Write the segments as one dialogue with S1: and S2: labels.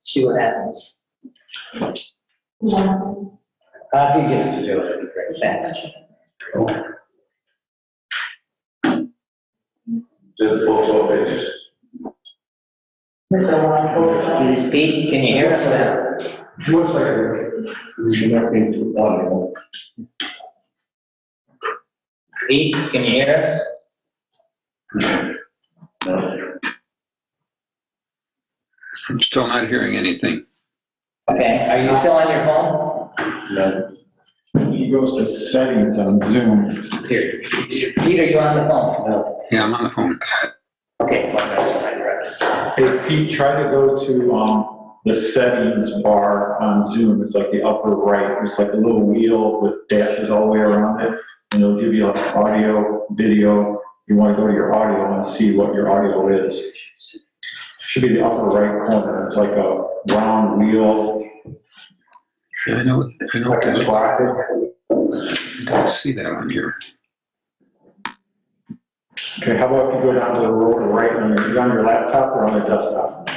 S1: see what happens.
S2: Yes.
S1: Uh, If you get it to do it, it'd be great, thanks.
S3: Just post all pages.
S2: Mr. Longfellow.
S1: Pete, can you hear us now?
S3: Looks like it. Connecting to audio.
S1: Pete, can you hear us?
S4: I'm still not hearing anything.
S1: Okay, are you still on your phone?
S3: No. He goes to settings on Zoom.
S1: Here, Pete, are you on the phone? No.
S4: Yeah, I'm on the phone.
S1: Okay. one minute, one minute.
S5: Hey, Pete, try to go to, um, the settings bar on Zoom. It's like the upper right. It's like a little wheel with dashes all the way around it. And it'll give you like audio, video. You want to go to your audio and see what your audio is. Should be the upper right corner. It's like a round wheel.
S4: Yeah, I know, I know, I
S5: block it.
S4: don't see that on here.
S5: Okay, how about if you go down to the lower right on your, on your laptop or on the desktop?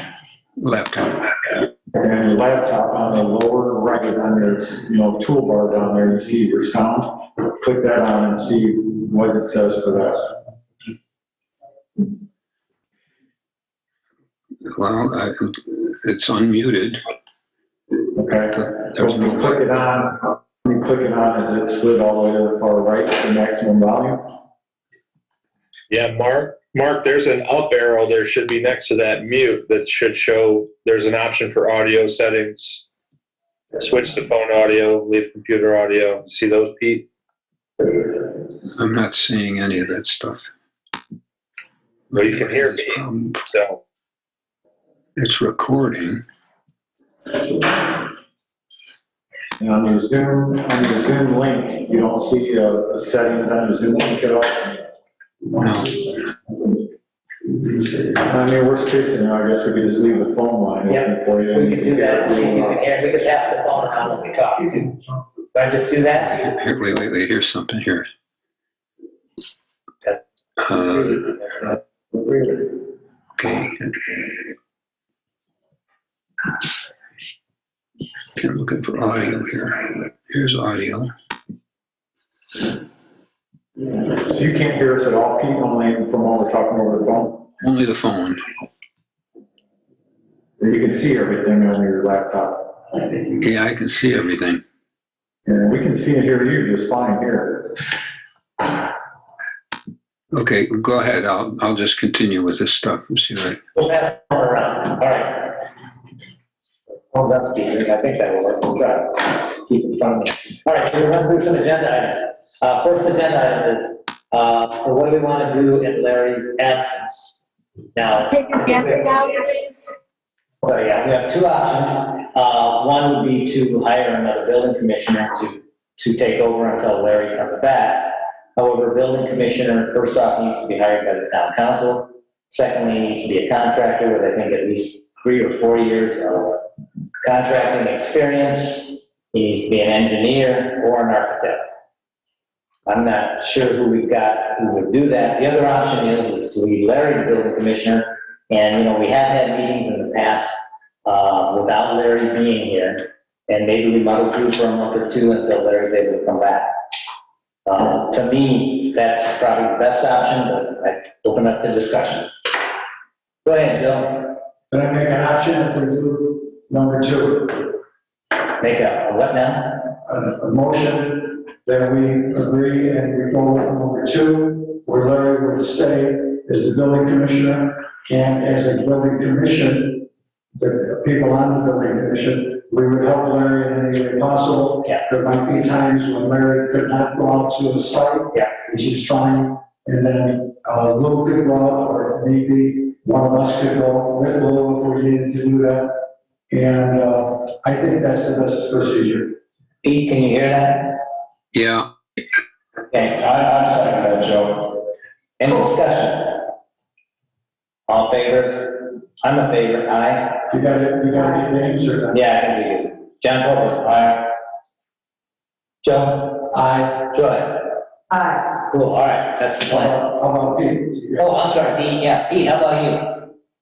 S4: Laptop.
S5: And on your laptop, on the lower right, on your, you know, toolbar down there, you see your sound. Click that on and see what it says for that.
S4: Well, I, it's unmuted.
S5: Okay? So
S4: There's
S5: when you
S4: no,
S5: click it on, when you click it on, is it slid all the way to the far right, the maximum volume?
S6: Yeah, Mark, Mark, there's an up arrow there should be next to that mute that should show, there's an option for audio settings. Switch to phone audio, leave computer audio. See those, Pete?
S4: I'm not seeing any of that stuff.
S6: Well, you can hear me.
S4: It's problem-
S6: So,
S4: It's recording.
S5: And on your Zoom, on your Zoom link, you don't see uh, the settings on your Zoom link at all?
S4: No,
S5: I mean, worst case scenario, I guess we could just leave the phone line
S1: Yeah,
S5: open for you.
S1: We can do that, and see if you can hear, we could pass the phone around when we talk too. Do I just do that?
S4: here, wait, wait, wait, here's something here. Uh, okay. Okay, I'm looking for audio here. Here's audio.
S5: So you can't hear us at all, Pete, only from when we're talking over the phone?
S4: Only the phone.
S5: You can see everything on your laptop.
S4: Yeah, I can see everything.
S5: And we can see and hear you just fine here.
S4: Okay, go ahead. I'll, I'll just continue with this stuff and see what,
S1: We'll pass the phone around, all right. Well, that's decent, I think that will work, we'll try. to Keep it fun. All right, so we're going through some agenda items. Uh, first agenda item is, uh, so what do we want to do in Larry's absence? Now,
S2: Take your guess down, please.
S1: So yeah, we have two options. Uh, One would be to hire another building commissioner to, to take over until Larry comes back. However, building commissioner, first off, needs to be hired by the town council. Secondly, he needs to be a contractor with, I think, at least three or four years of contracting experience. He needs to be an engineer or an architect. I'm not sure who we've got who would do that. The other option is, is to leave Larry the building commissioner and, you know, we have had meetings in the past uh, without Larry being here, and maybe we muddle through for a month or two until Larry's able to come back. Uh, To me, that's probably the best option, but I open up the discussion. Go ahead, Joe.
S3: Can I make an option for you, number two?
S1: Make a, a what now?
S3: a a motion that we agree and we go with number two, where Larry will stay as the building commissioner, and as a building commission, the people on the building commission, we would help Larry in any way possible.
S1: Yeah.
S3: There might be times when Larry could not go out to the site.
S1: Yeah.
S3: Which is fine, and then, uh, Lou could go out, or if maybe, one of us could go with Lou if we needed to do that. And, uh, I think that's the best procedure.
S1: Pete, can you hear that?
S4: yeah,
S1: Okay,
S5: I, I second that, Joe.
S1: any discussion? All in favor? I'm a favor, aye.
S3: You gotta, you gotta get names or not?
S1: Yeah, I can do it. John Coker, aye. Joe?
S3: I,
S1: Joy?
S2: Aye.
S1: Cool, all right, that's the
S3: how
S1: plan.
S3: about Pete? You got-
S1: Oh, I'm sorry, Dean, yeah, Pete, how about